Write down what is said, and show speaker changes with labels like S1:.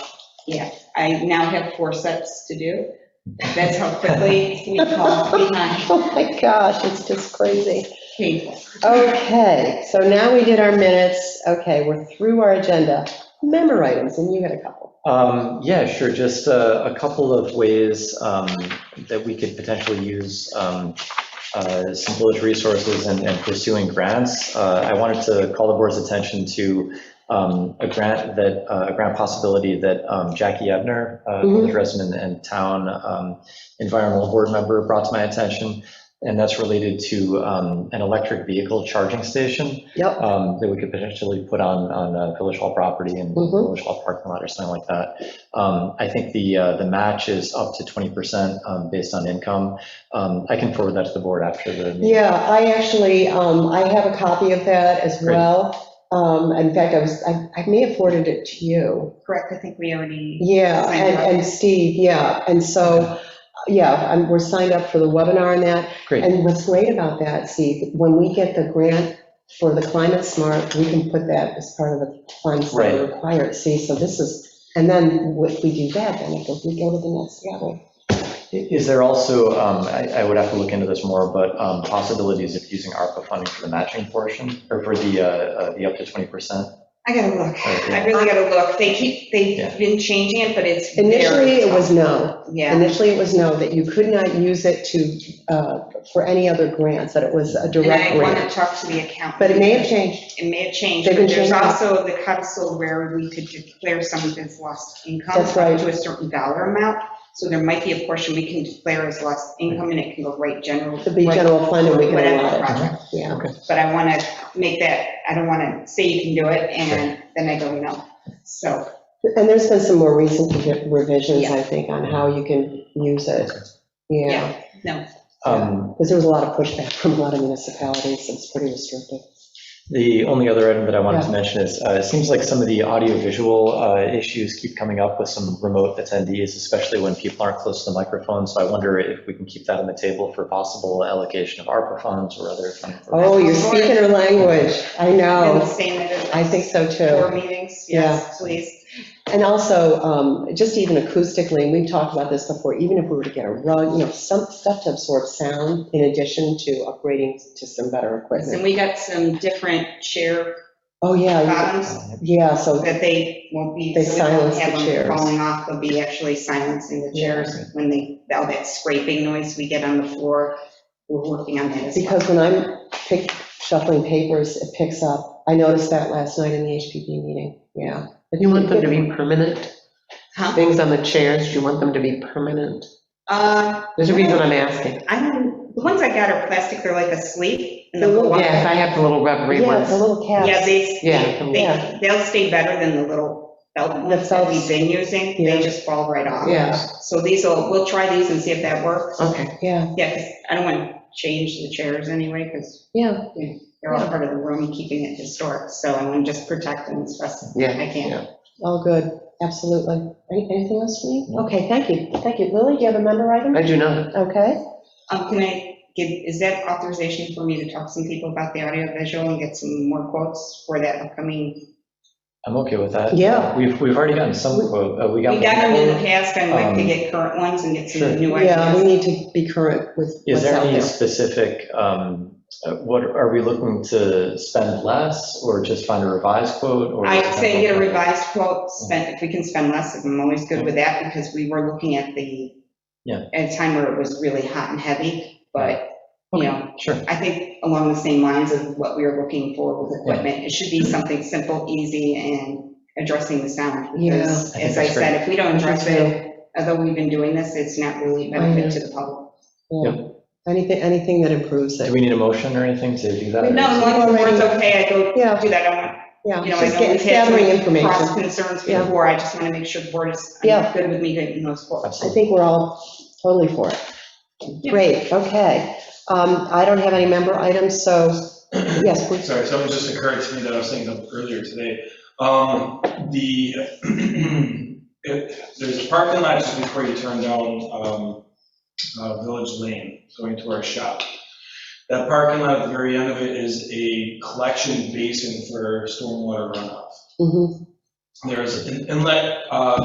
S1: Yeah, I now have four sets to do. That's how quickly we call behind
S2: Oh my gosh, it's just crazy.
S1: people.
S2: Okay, so now we did our minutes. Okay, we're through our agenda. Member items, and you had a couple.
S3: Um, Yeah, sure, just uh, a couple of ways um, that we could potentially use um, uh, some village resources and and pursuing grants. Uh, I wanted to call the board's attention to um, a grant that, uh, a grant possibility that um, Jackie Ebner, uh,
S2: Mhm.
S3: village resident and town um, environmental board member, brought to my attention, and that's related to um, an electric vehicle charging station
S2: Yep,
S3: um, that we could potentially put on, on uh, Village Hall property and
S2: Mhm.
S3: Village Hall parking lot or something like that. Um, I think the, uh, the match is up to 20% um, based on income. Um, I can forward that to the board after the meeting.
S2: yeah, I actually, um, I have a copy of that as
S3: Great.
S2: well. Um, in fact, I was, I, I may have forwarded it to you.
S1: Correct, I think we already,
S2: Yeah,
S1: Signed up.
S2: and, and Steve, yeah, and so, yeah, I'm, we're signed up for the webinar on that.
S3: Great,
S2: And what's great about that, Steve, when we get the grant for the climate smart, we can put that as part of the funds that are
S3: Right.
S2: required, see, so this is, and then if we do that, then it goes, we go to the next level.
S3: is there also, um, I, I would have to look into this more, but um, possibilities of using ARPA funding for the matching portion or for the, uh, uh, the up to 20%?
S1: I gotta look.
S3: Okay.
S1: I really gotta look. They keep,
S3: Yeah.
S1: they've been changing it, but it's. very
S2: Initially, it was
S1: tough.
S2: no,
S1: Yeah,
S2: initially it was no, that you could not use it to, uh, for any other grants, that it was a
S1: and
S2: direct
S1: I
S2: grant.
S1: wanna talk to the accountant.
S2: But it may have changed,
S1: It may have changed,
S2: They've been
S1: but there's
S2: changing.
S1: also the codicil where we could declare someone as lost income.
S2: That's right.
S1: up To a certain dollar amount, so there might be a portion we can declare as lost income, and it can go right general.
S2: to be
S1: right
S2: general fund and we can
S1: Whatever
S2: allot
S1: project.
S2: it, yeah.
S1: but I want to make that, I don't want to say you can do it, and then I go, no. So,
S2: And there's been some more recent revisions, I think, on how you can use it, yeah.
S1: yeah, no.
S3: Um,
S2: Because there was a lot of pushback from a lot of municipalities, it's pretty restrictive.
S3: The only other item that I wanted
S2: Yeah.
S3: to mention is, uh, it seems like some of the audiovisual uh, issues keep coming up with some remote attendees, especially when people aren't close to the microphone. So I wonder if we can keep that on the table for possible allocation of ARPA funds or other. fund-
S2: Oh, you're speaking her language, I
S1: And the
S2: know,
S1: same as
S2: Oh, I think so
S1: Four
S2: too.
S1: meetings, yes, please.
S2: And also, um, just even acoustically, and we've talked about this before, even if we were to get a rug, you know, some stuff to absorb sound in addition to upgrading to some better
S1: And
S2: equipment.
S1: we got some different chair
S2: Oh, yeah, you-
S1: bottoms
S2: yeah, so,
S1: that they won't be.
S2: They
S1: so we won't
S2: silence the
S1: have them
S2: chairs.
S1: Falling off, they'll be actually silencing the chairs when they, all that scraping noise we get on the floor. We're working on that as well.
S2: because when I'm pick, shuffling papers, it picks up. I noticed that last night in the HPP meeting, yeah.
S4: You want them to be permanent?
S1: Huh?
S4: Things on the chairs, you want them to be permanent?
S1: Uh,
S4: There's a reason I'm asking.
S1: I don't, the ones I got are plastic, they're like a sleeve. and
S2: They
S1: they'll
S2: look-
S1: go up.
S4: Yes, I have the little rubbery
S2: Yeah, the
S4: ones.
S2: little caps.
S1: Yeah, they,
S4: Yeah.
S1: They, they'll stay better than the little belt ones that we've been using,
S2: Yeah.
S1: they just fall right off.
S4: Yeah, Uh-huh.
S1: So these will, we'll try these and see if that works.
S4: okay.
S2: Yeah,
S1: Yeah, 'cause I don't want to change the chairs anyway, because
S2: yeah,
S1: they're all
S2: Yeah.
S1: part of the room, keeping it historic, so I want to just protect them as best as
S4: Yeah.
S1: I can.
S2: all good, absolutely. Any- Anything else for me?
S3: No.
S2: Okay, thank you, thank you. Lily, do you have a member item?
S4: I do not.
S2: Okay,
S1: Um, can I give, is that authorization for me to talk to some people about the audio visual and get some more quotes for that upcoming?
S3: I'm okay with that.
S2: Yeah.
S3: We've, we've already gotten some, quote, uh, we
S1: We
S3: got.
S1: got them in the past, I'd like to
S3: Um,
S1: get current ones and get
S3: Sure.
S1: some new
S2: yeah, we
S1: ideas.
S2: need to be current with
S3: Is
S2: what's
S3: there
S2: out
S3: any
S2: there.
S3: specific, um, uh, what, are we looking to spend less or just find a revised quote? or-
S1: I'd say get a revised quote, spend, if we can spend less, I'm always good with that, because we were looking at the,
S3: Yeah.
S1: at a time where it was really hot and heavy, but, you know,
S3: Sure.
S1: I think along the same lines of what we were looking for with equipment, it should be something simple, easy, and addressing the sound. Because,
S3: Yeah. I think
S1: as I
S3: that's great.
S1: said, if we don't address it,
S2: Yeah.
S1: although we've been doing this, it's not really a benefit to the public.
S2: Anything, anything that improves
S3: Do
S2: it.
S3: we need a motion or anything to do that?
S1: No, as long as the board's okay, I go
S2: Yeah,
S1: do that, I want,
S2: yeah,
S1: you know, I
S2: just
S1: know
S2: get-
S1: we've had
S2: gathering
S1: some cross
S2: information.
S1: concerns
S2: Yeah.
S1: before, I just want to make sure the board is
S2: Yeah.
S1: good with me getting those quotes.
S2: I
S3: Absolutely.
S2: think we're all totally for it.
S1: Yeah.
S2: Great, okay. Um, I don't have any member items, so, yes, please.
S5: Sorry, something just occurred to me that I was thinking of earlier today. Um, The, if- there's a parking lot just before you turn down um, uh, Village Lane, going to our shop. That parking lot at the very end of it is a collection basin for stormwater runoff.
S2: Mhm.
S5: There's an inlet uh,